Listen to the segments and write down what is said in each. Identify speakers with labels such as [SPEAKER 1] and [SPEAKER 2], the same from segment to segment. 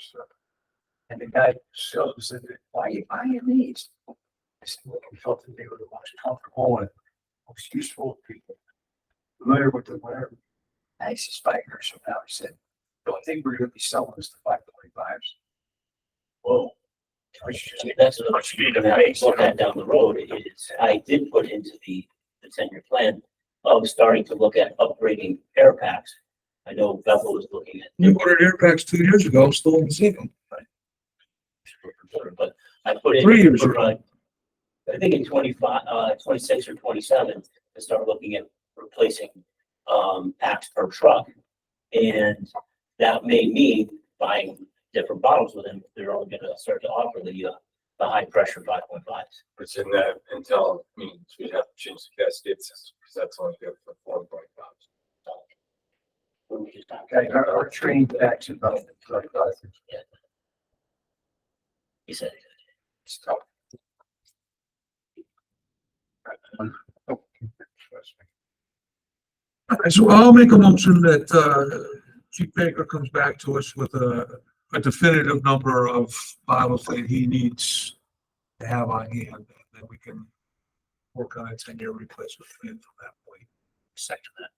[SPEAKER 1] stuff. And the guy still said, why are you buying these? I said, well, we felt that they were the most comfortable and most useful to people. Familiar with the wear. Nicest bikers. So now he said, the only thing we're gonna be selling is the five twenty-fives. Whoa. We should
[SPEAKER 2] I
[SPEAKER 1] just-
[SPEAKER 2] mean, that's what I'm speaking about, it's not that down the road, it is, I did put into the, the ten-year plan of starting to look at upgrading air packs. I know Bethel was looking at,
[SPEAKER 3] You ordered air packs two years ago, still haven't seen them.
[SPEAKER 2] but I put in.
[SPEAKER 3] Three years
[SPEAKER 2] for,
[SPEAKER 3] ago.
[SPEAKER 2] uh, I think in twenty-five, uh, twenty-six or twenty-seven, to start looking at replacing, um, packs per truck. And that may mean buying different bottles with them, they're only gonna start to offer the, uh, the high-pressure five point fives.
[SPEAKER 4] Which in that, until, I mean, we have to change the cascade system, because that's only good for four point five.
[SPEAKER 1] Okay, our, our train backs about thirty-five.
[SPEAKER 2] He said.
[SPEAKER 1] Stop.
[SPEAKER 3] Alright, So I'll make a motion that, uh, Chief Baker comes back to us with a, a definitive number of bottles that he needs to have on hand, and then we can work on a ten-year replacement plan from that point.
[SPEAKER 2] Second that.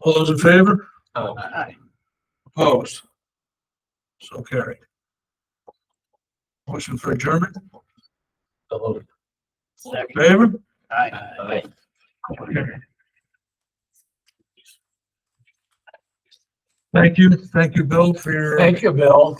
[SPEAKER 3] All those in favor?
[SPEAKER 1] Aye.
[SPEAKER 3] Opposed? So carried. Motion for adjournment,
[SPEAKER 2] Second.
[SPEAKER 3] favor?
[SPEAKER 1] Aye.
[SPEAKER 2] Aye.
[SPEAKER 3] Thank you, thank you, Bill, for your.
[SPEAKER 5] Thank you, Bill.